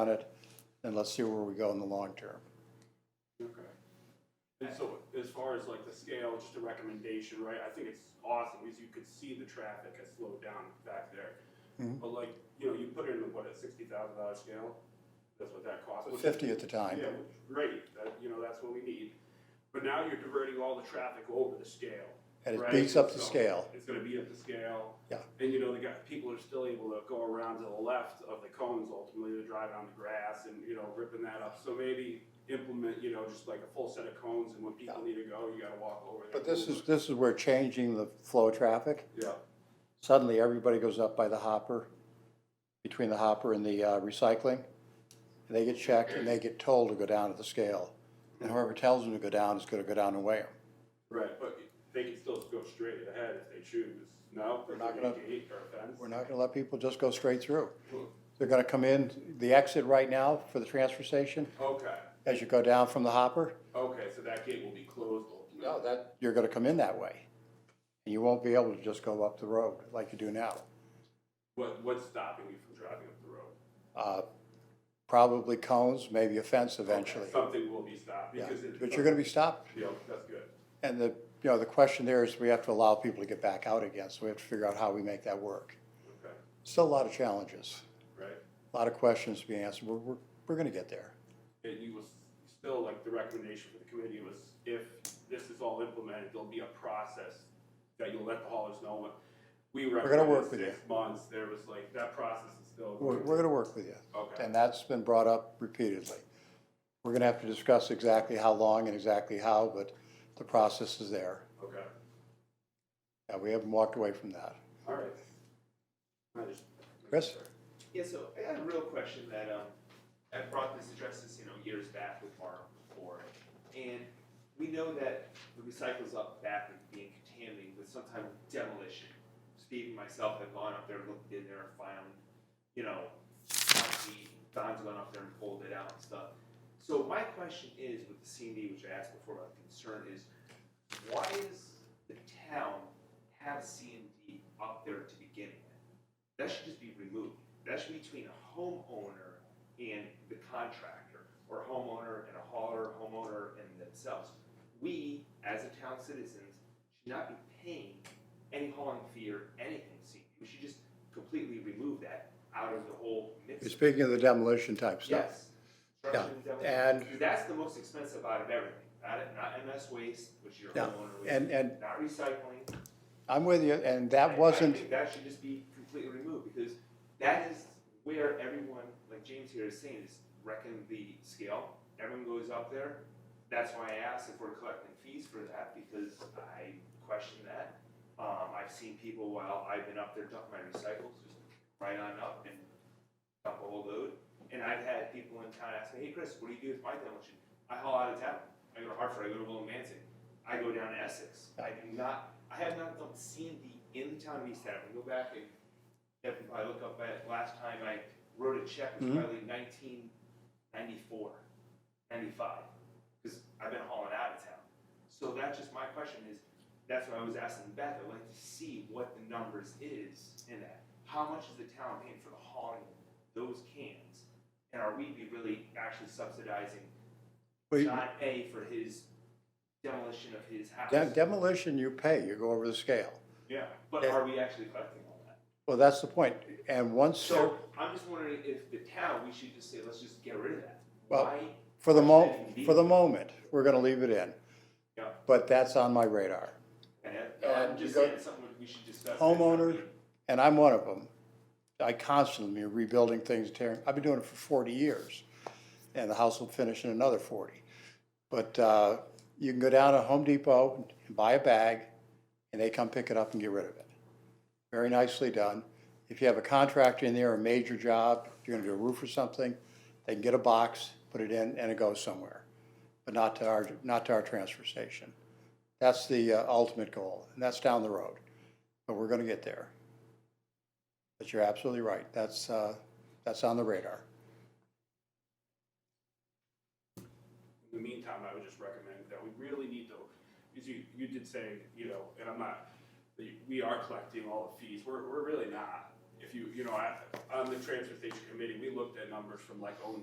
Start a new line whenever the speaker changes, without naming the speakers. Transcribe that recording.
on it, and let's see where we go in the long term.
Okay. And so as far as like the scale, just a recommendation, right, I think it's awesome, because you could see the traffic has slowed down back there.
Mm-hmm.
But like, you know, you put in, what, a sixty thousand dollar scale, that's what that costs. which-
Fifty at the time.
Yeah, which is great, that, you know, that's what we need, but now you're diverting all the traffic over the scale.
And it
right?
beats up the
So
scale.
It's gonna be at the scale.
Yeah.
And you know, the guy, people are still able to go around to the left of the cones ultimately, they're driving on the grass and, you know, ripping that up. So maybe implement, you know, just like a full set of cones and when people need to go, you gotta walk over there.
But this is, this is where changing the flow of traffic,
Yeah,
suddenly everybody goes up by the hopper, between the hopper and the uh, recycling. And they get checked and they get told to go down to the scale. And whoever tells them to go down is gonna go down and weigh them.
right, but they can still go straight ahead if they choose, no? We're
not gonna-
Gate or a fence?
We're not gonna let people just go straight through. They're gonna come in, the exit right now for the transfer station,
Okay,
as you go down from the hopper,
okay, so that gate will be closed ultimately.
No, that. You're gonna come in that way. And you won't be able to just go up the road like you do now.
What, what's stopping you from driving up the road?
Uh, Probably cones, maybe a fence eventually.
Something will be stopped
Yeah,
because it's.
But you're gonna be stopped.
Yeah, that's good.
And the, you know, the question there is we have to allow people to get back out again, so we have to figure out how we make that work.
Okay,
Still a lot of challenges,
right.
a lot of questions to be answered. We're, we're, we're gonna get there.
And you was still like the recommendation for the committee was if this is all implemented, there'll be a process that you'll let the haulers know what. We
gonna work
recommended
with
six months, there was like, that process is still.
We're, we're gonna work with you.
Okay.
And that's been brought up repeatedly. We're gonna have to discuss exactly how long and exactly how, but the process is there.
Okay,
Yeah, we haven't walked away from that.
all right. I just-
Chris?
Yeah, so I had a real question that, um, I brought this, addressed this, you know, years back with Mark before. And we know that the recycle's up back is being contaminated with some type of demolition. Steve and myself have gone up there, looked in there, found, you know, concrete. Don's gone up there and pulled it out and stuff. So my question is with the C and D, which I asked before, my concern is, why does the town have C and D up there to begin with? That should just be removed. That should be between a homeowner and the contractor, or homeowner and a hauler, homeowner and themselves. We, as a town citizens, should not be paying any hauling fee or anything, see, we should just completely remove that out of the whole mix.
You're speaking of the demolition type stuff.
Yes. Structure and demolition.
and-
Because That's the most expensive out of everything, not, not MS waste, which your
Yeah,
homeowner waste.
and- and-
Not recycling.
I'm with you, and
I-
that
I
wasn't,
think that should just be completely removed, because that is where everyone, like James here is saying, is reckon the scale, everyone goes up there. That's why I asked if we're collecting fees for that, because I question that. Um, I've seen people while I've been up there dump my recycles, just right on up and dump a whole load. And I've had people in town ask me, hey, Chris, what do you do with my demolition? I haul out of town, I go to Hartford, I go to Willimantic, I go down to Essex. I do not, I have not dumped C and D in the town of East Hampton. Go back and definitely probably look up at last time I wrote a check was
Mhm.
probably 1994, 95, because I've been hauling out of town. So that's just my question is, that's why I was asking Beth, I'd like to see what the numbers is in that. How much is the town paying for the hauling of those cans? And are we be really actually subsidizing
we-
John A for his demolition of his house?
de- demolition you pay, you go over the scale.
Yeah, but
Yeah.
are we actually collecting all that?
Well, that's the point, and once,
So I'm just wondering if the town, we should just say, let's just get rid of that.
Well,
Why?
for the mo,
why should we
for the
leave
moment, we're gonna leave it in.
Yeah.
But that's on my radar,
it? And it-
and
I'm
you
just
go-
saying it's something we should discuss.
Homeowner. and I'm one of them. I constantly am rebuilding things, tearing, I've been doing it for forty years, and the house will finish in another forty. But, uh, you can go down to Home Depot and buy a bag, and they come pick it up and get rid of it. very nicely done. If you have a contractor in there, a major job, if you're gonna do a roof or something, they can get a box, put it in, and it goes somewhere, but not to our, not to our transfer station. That's the uh, ultimate goal, and that's down the road, but we're gonna get there. But you're absolutely right, that's, uh, that's on the radar.
In the meantime, I would just recommend that we really need to, because you, you did say, you know, and I'm not, that you- we are collecting all the fees, we're, we're really not. If if you, you know, I, on the transfer station committee, we looked at numbers from like oh